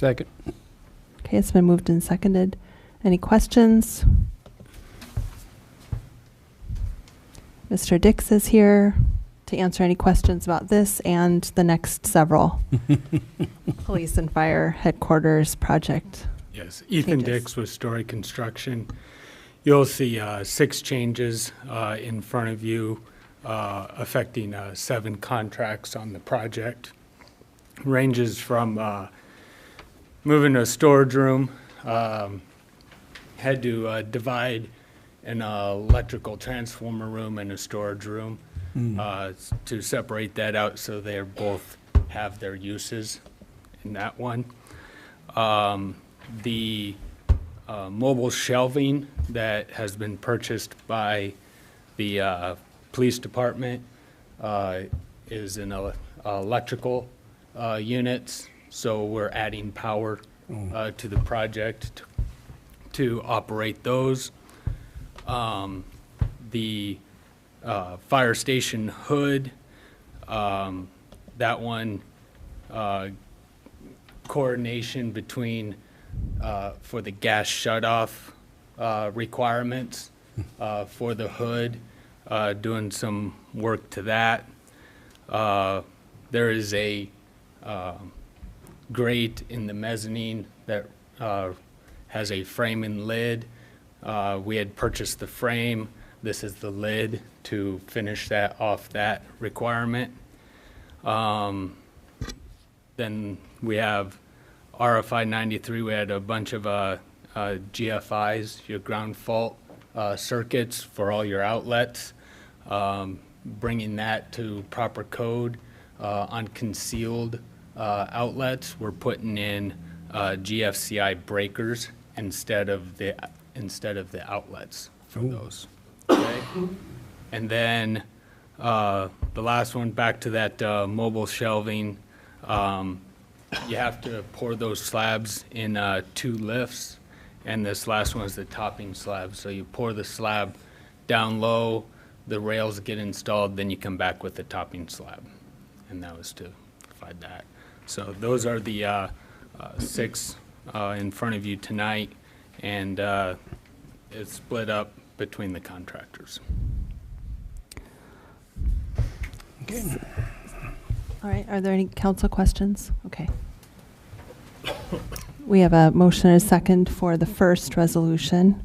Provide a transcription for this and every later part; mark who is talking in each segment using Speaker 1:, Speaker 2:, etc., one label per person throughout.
Speaker 1: Second.
Speaker 2: Okay, it's been moved and seconded. Any questions? Mr. Dix is here to answer any questions about this and the next several police and fire headquarters project.
Speaker 3: Yes, Ethan
Speaker 2: Changes.
Speaker 3: Dix with Story Construction. You'll see uh, six changes uh, in front of you uh, affecting uh, seven contracts on the project. Ranges from uh, moving a storage room, um, had to uh, divide an uh, electrical transformer room and a storage room uh, s- to separate that out so they both have their uses in that one. Um, The uh, mobile shelving that has been purchased by the uh, police department uh, is in ele- electrical uh, units, so we're adding power uh, to the project to- to operate those. Um, The uh, fire station hood, um, that one uh, coordination between, uh, for the gas shutoff uh, requirements uh, for the hood, uh, doing some work to that. Uh, There is a um, grate in the mezzanine that uh, has a frame and lid. Uh, We had purchased the frame. This is the lid to finish that off that requirement. Then we have RFI 93, we had a bunch of uh, uh, GFIs, your ground fault uh, circuits for all your outlets, Um, bringing that to proper code uh, on concealed uh, outlets. We're putting in uh, GFCI breakers instead of the, instead of the outlets for those. Okay? And then uh, the last one, back to that uh, mobile shelving. um, You have to pour those slabs in uh, two lifts, and this last one is the topping slab. So you pour the slab down low, the rails get installed, then you come back with the topping slab. And that was to provide that. So those are the uh, uh, six uh, in front of you tonight, and uh, it's split up between the contractors.
Speaker 2: All right, are there any council questions? Okay. We have a motion and a second for the first resolution.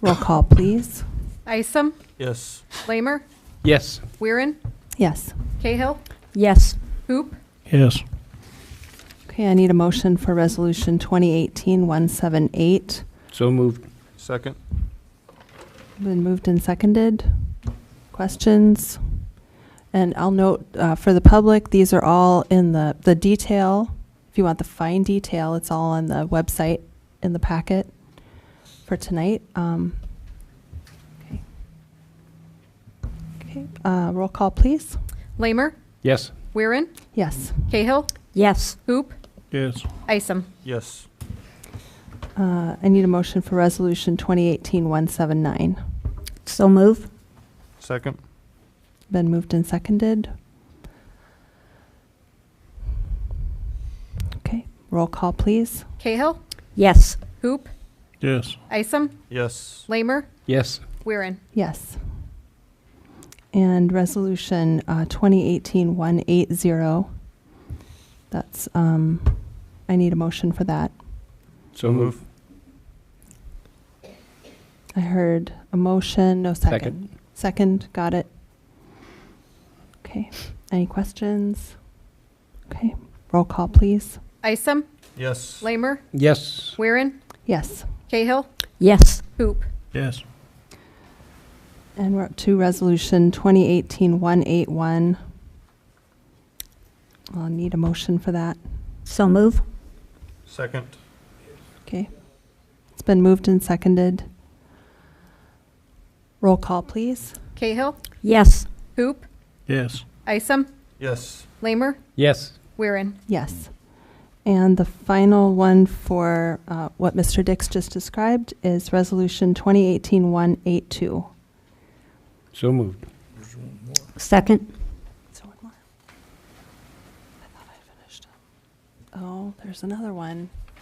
Speaker 2: Roll call, please.
Speaker 4: Isom,
Speaker 5: Yes.
Speaker 4: Lamer,
Speaker 1: Yes.
Speaker 4: Weirin,
Speaker 2: Yes.
Speaker 4: Cahill,
Speaker 6: Yes.
Speaker 4: Hoop,
Speaker 5: Yes.
Speaker 2: Okay, I need a motion for resolution 2018-178.
Speaker 1: So moved.
Speaker 5: Second?
Speaker 2: Been moved and seconded. Questions? And I'll note, uh, for the public, these are all in the, the detail. If you want the fine detail, it's all on the website in the packet for tonight. Um, Okay, Okay. uh, roll call, please.
Speaker 4: Lamer,
Speaker 1: Yes.
Speaker 4: Weirin,
Speaker 2: Yes.
Speaker 4: Cahill,
Speaker 6: Yes.
Speaker 4: Hoop,
Speaker 5: Yes.
Speaker 4: Isom.
Speaker 5: Yes.
Speaker 2: Uh, I need a motion for resolution 2018-179.
Speaker 6: So move.
Speaker 5: Second?
Speaker 2: Been moved and seconded. Okay, roll call, please.
Speaker 4: Cahill,
Speaker 6: Yes.
Speaker 4: Hoop,
Speaker 5: Yes.
Speaker 4: Isom,
Speaker 5: Yes.
Speaker 4: Lamer,
Speaker 1: Yes.
Speaker 4: Weirin.
Speaker 2: Yes. And resolution uh, 2018-180, that's, um, I need a motion for that.
Speaker 1: So moved.
Speaker 2: I heard a motion, no second.
Speaker 1: Second.
Speaker 2: Second, got it. Okay, any questions? Okay, roll call, please.
Speaker 4: Isom,
Speaker 5: Yes.
Speaker 4: Lamer,
Speaker 1: Yes.
Speaker 4: Weirin,
Speaker 2: Yes.
Speaker 4: Cahill,
Speaker 6: Yes.
Speaker 4: Hoop,
Speaker 5: Yes.
Speaker 2: And we're up to Resolution 2018-181. I'll need a motion for that.
Speaker 6: So move.
Speaker 5: Second?
Speaker 2: Okay. It's been moved and seconded. Roll call, please.
Speaker 4: Cahill,
Speaker 6: Yes.
Speaker 4: Hoop,
Speaker 5: Yes.
Speaker 4: Isom,
Speaker 5: Yes.
Speaker 4: Lamer,
Speaker 1: Yes.
Speaker 4: Weirin.
Speaker 2: Yes. And the final one for uh, what Mr. Dix just described is Resolution 2018-182.
Speaker 1: So moved.
Speaker 6: Second.
Speaker 2: So one more. I thought I finished. Oh, there's another one.